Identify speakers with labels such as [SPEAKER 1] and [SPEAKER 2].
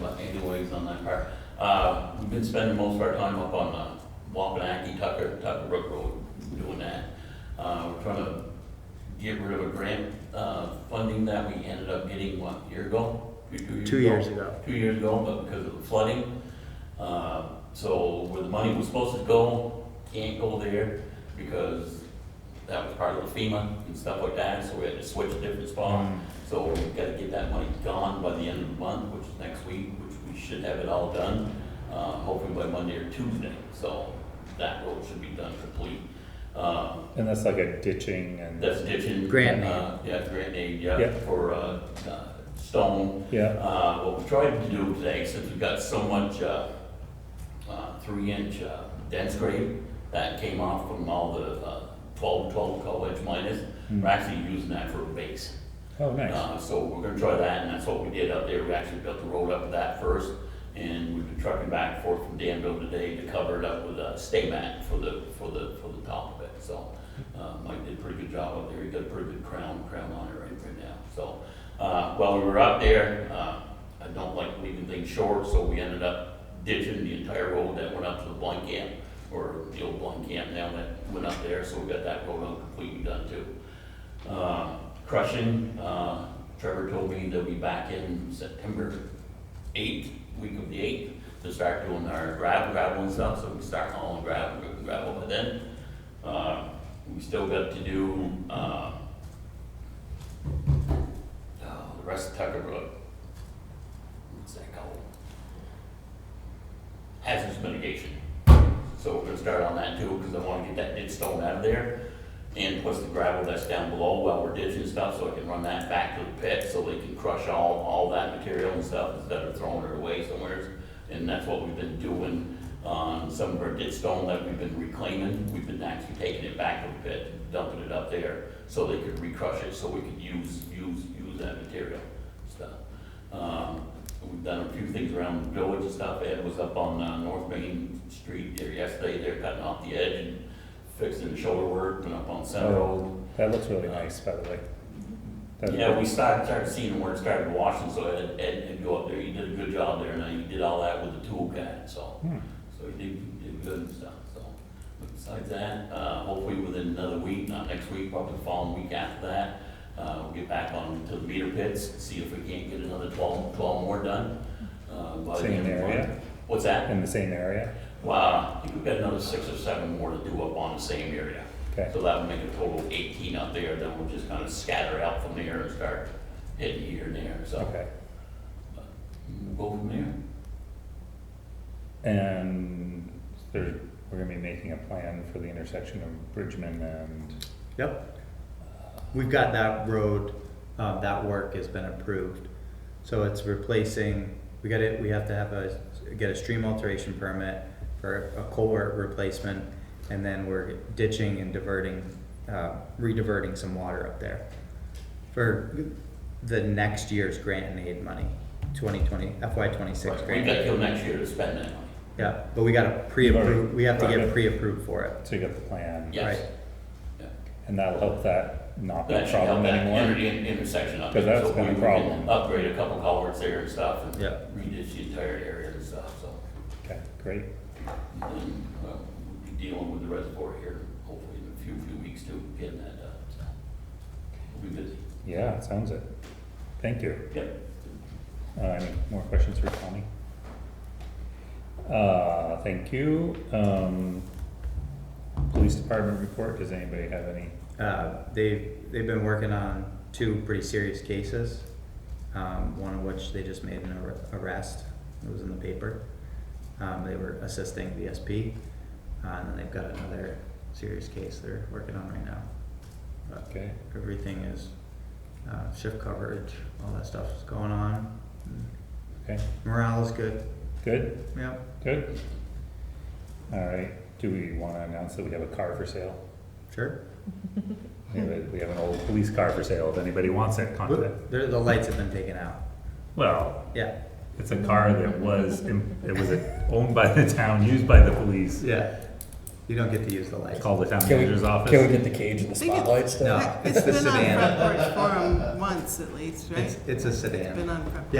[SPEAKER 1] but anyways, on that part. Uh, we've been spending most of our time up on, uh, Wapanaki, Tucker, Tucker Brook Road, doing that. Uh, we're trying to get rid of a grant, uh, funding that we ended up getting, what, a year ago? Two ago?
[SPEAKER 2] Two years ago.
[SPEAKER 1] Two years ago, but because of the flooding, uh, so where the money was supposed to go, can't go there because that was part of the FEMA and stuff like that, so we had to switch a different spot. So we've got to get that money gone by the end of the month, which is next week, which we should have it all done, uh, hopefully by Monday or Tuesday. So that road should be done complete. Uh,
[SPEAKER 3] And that's like a ditching and,
[SPEAKER 1] that's ditching.
[SPEAKER 2] Grant aid.
[SPEAKER 1] uh, Yeah, grant aid, yeah,
[SPEAKER 3] Yeah.
[SPEAKER 1] for, uh, uh, stone.
[SPEAKER 3] yeah,
[SPEAKER 1] Uh, what we tried to do today, since we've got so much, uh, uh, three inch, uh, dense grade that came off from all the, uh, twelve, twelve co-edge miners, we're actually using that for a base.
[SPEAKER 3] oh, nice,
[SPEAKER 1] Uh, so we're gonna try that, and that's what we did up there, we actually built the road up to that first, and we've been trucking back and forth from Danville today to cover it up with a stay mat for the, for the, for the top of it, so. Uh, Mike did a pretty good job up there, he got a pretty good crown, crown on it right, right now, so. Uh, while we were up there, uh, I don't like leaving things short, so we ended up ditching the entire road that went up to the blind camp, or the old blind camp now that went up there, so we got that road on completely done too. Uh, crushing, uh, Trevor told me they'll be back in September eighth, week of the eighth, to start doing our gravel, gravel and stuff, so we start hauling gravel, gravel by then. Uh, we still got to do, uh, uh, the rest of Tucker Brook. What's that called? Hazardous mitigation. So we're gonna start on that too, because I wanna get that ditch stone out of there. And plus the gravel that's down below while we're ditching stuff, so I can run that back to the pit, so they can crush all, all that material and stuff instead of throwing it away somewhere. And that's what we've been doing on some of our ditch stone that we've been reclaiming. We've been actually taking it back to the pit, dumping it up there, so they could recrush it, so we could use, use, use that material stuff. Um, We've done a few things around the village and stuff. Ed was up on uh, North Main Street there yesterday, they're cutting off the edge and fixing the shoulder work, went up on Center Road.
[SPEAKER 3] that looks
[SPEAKER 1] uh,
[SPEAKER 3] really nice, by the way. That-
[SPEAKER 1] Yeah, we started, started seeing where it started washing, so Ed, Ed did go up there, he did a good job there, and uh, he did all that with the tool guy, so.
[SPEAKER 3] Hmm.
[SPEAKER 1] So he did, he did good and stuff, so. But Besides that, uh, hopefully within another week, not next week, probably the following week after that, uh, we'll get back on to the meter pits, see if we can't get another twelve, twelve more done. uh, by the
[SPEAKER 3] Same
[SPEAKER 1] end of the month.
[SPEAKER 3] area?
[SPEAKER 1] What's that?
[SPEAKER 3] In the same area,
[SPEAKER 1] Well, I think we've got another six or seven more to do up on the same area.
[SPEAKER 3] Okay.
[SPEAKER 1] So that would make a total of eighteen up there, then we'll just kind of scatter out from there and start hitting here and there, so.
[SPEAKER 3] okay.
[SPEAKER 1] We'll go from there.
[SPEAKER 3] And there, we're gonna be making a plan for the intersection of Bridgman and,
[SPEAKER 2] Yep. We've got that road, um, that work has been approved. So it's replacing, we got it, we have to have a, get a stream alteration permit for a culvert replacement. And then we're ditching and diverting, uh, re-diverting some water up there. For the next year's grant and aid money, twenty twenty, FY twenty-six
[SPEAKER 1] We've
[SPEAKER 2] grant.
[SPEAKER 1] got
[SPEAKER 2] aid.
[SPEAKER 1] till next year to spend that money.
[SPEAKER 2] Yeah, but we gotta pre-approve, we have to
[SPEAKER 3] Right.
[SPEAKER 2] get pre-approved for it.
[SPEAKER 3] so you got the plan.
[SPEAKER 1] Yes.
[SPEAKER 2] Right.
[SPEAKER 1] Yeah.
[SPEAKER 3] And that'll help that not be a
[SPEAKER 1] That should help
[SPEAKER 3] problem
[SPEAKER 1] that inter-
[SPEAKER 3] anymore.
[SPEAKER 1] in- intersection up.
[SPEAKER 3] 'Cause
[SPEAKER 1] there,
[SPEAKER 3] that's
[SPEAKER 1] so
[SPEAKER 3] been a
[SPEAKER 1] we- we can
[SPEAKER 3] problem.
[SPEAKER 1] Upgrade a couple culverts there and stuff and
[SPEAKER 2] Yeah.
[SPEAKER 1] redish the entire area and stuff, so.
[SPEAKER 3] Okay, great,
[SPEAKER 1] And then, uh, we'll be dealing with the reservoir here hopefully in a few, few weeks too, getting that done, so. We'll be busy.
[SPEAKER 3] yeah, it sounds it. Thank you.
[SPEAKER 1] Yep.
[SPEAKER 3] Uh, any more questions for Tommy? Uh, thank you. Um, police department report, does anybody have any?
[SPEAKER 2] Uh, they've, they've been working on two pretty serious cases, um, one of which they just made an ar- arrest, it was in the paper. Um, they were assisting the SP, uh, and then they've got another serious case they're working on right now. But
[SPEAKER 3] Okay,
[SPEAKER 2] everything is, uh, shift coverage, all that stuff is going on.
[SPEAKER 3] okay,
[SPEAKER 2] Morale is good,
[SPEAKER 3] good,
[SPEAKER 2] yep.
[SPEAKER 3] good. All right, do we wanna announce that we have a car for sale?
[SPEAKER 2] Sure.
[SPEAKER 3] Anyway, we have an old police car for sale, if anybody wants it, contact.
[SPEAKER 2] The, the lights have been taken out,
[SPEAKER 3] Well,
[SPEAKER 2] yeah,
[SPEAKER 3] it's a car that was, im- it was owned by the town, used by the police,
[SPEAKER 2] yeah. You don't get to use the lights.
[SPEAKER 3] called the town
[SPEAKER 4] Can we-
[SPEAKER 3] manager's office.
[SPEAKER 4] Can we get the cage and the
[SPEAKER 5] We get-
[SPEAKER 4] spotlights down?
[SPEAKER 2] No, it's the
[SPEAKER 5] It's been on
[SPEAKER 2] sedan.
[SPEAKER 5] Front Porch Forum once at least, right?
[SPEAKER 2] It's, it's a sedan.
[SPEAKER 5] It's been on Front Porch.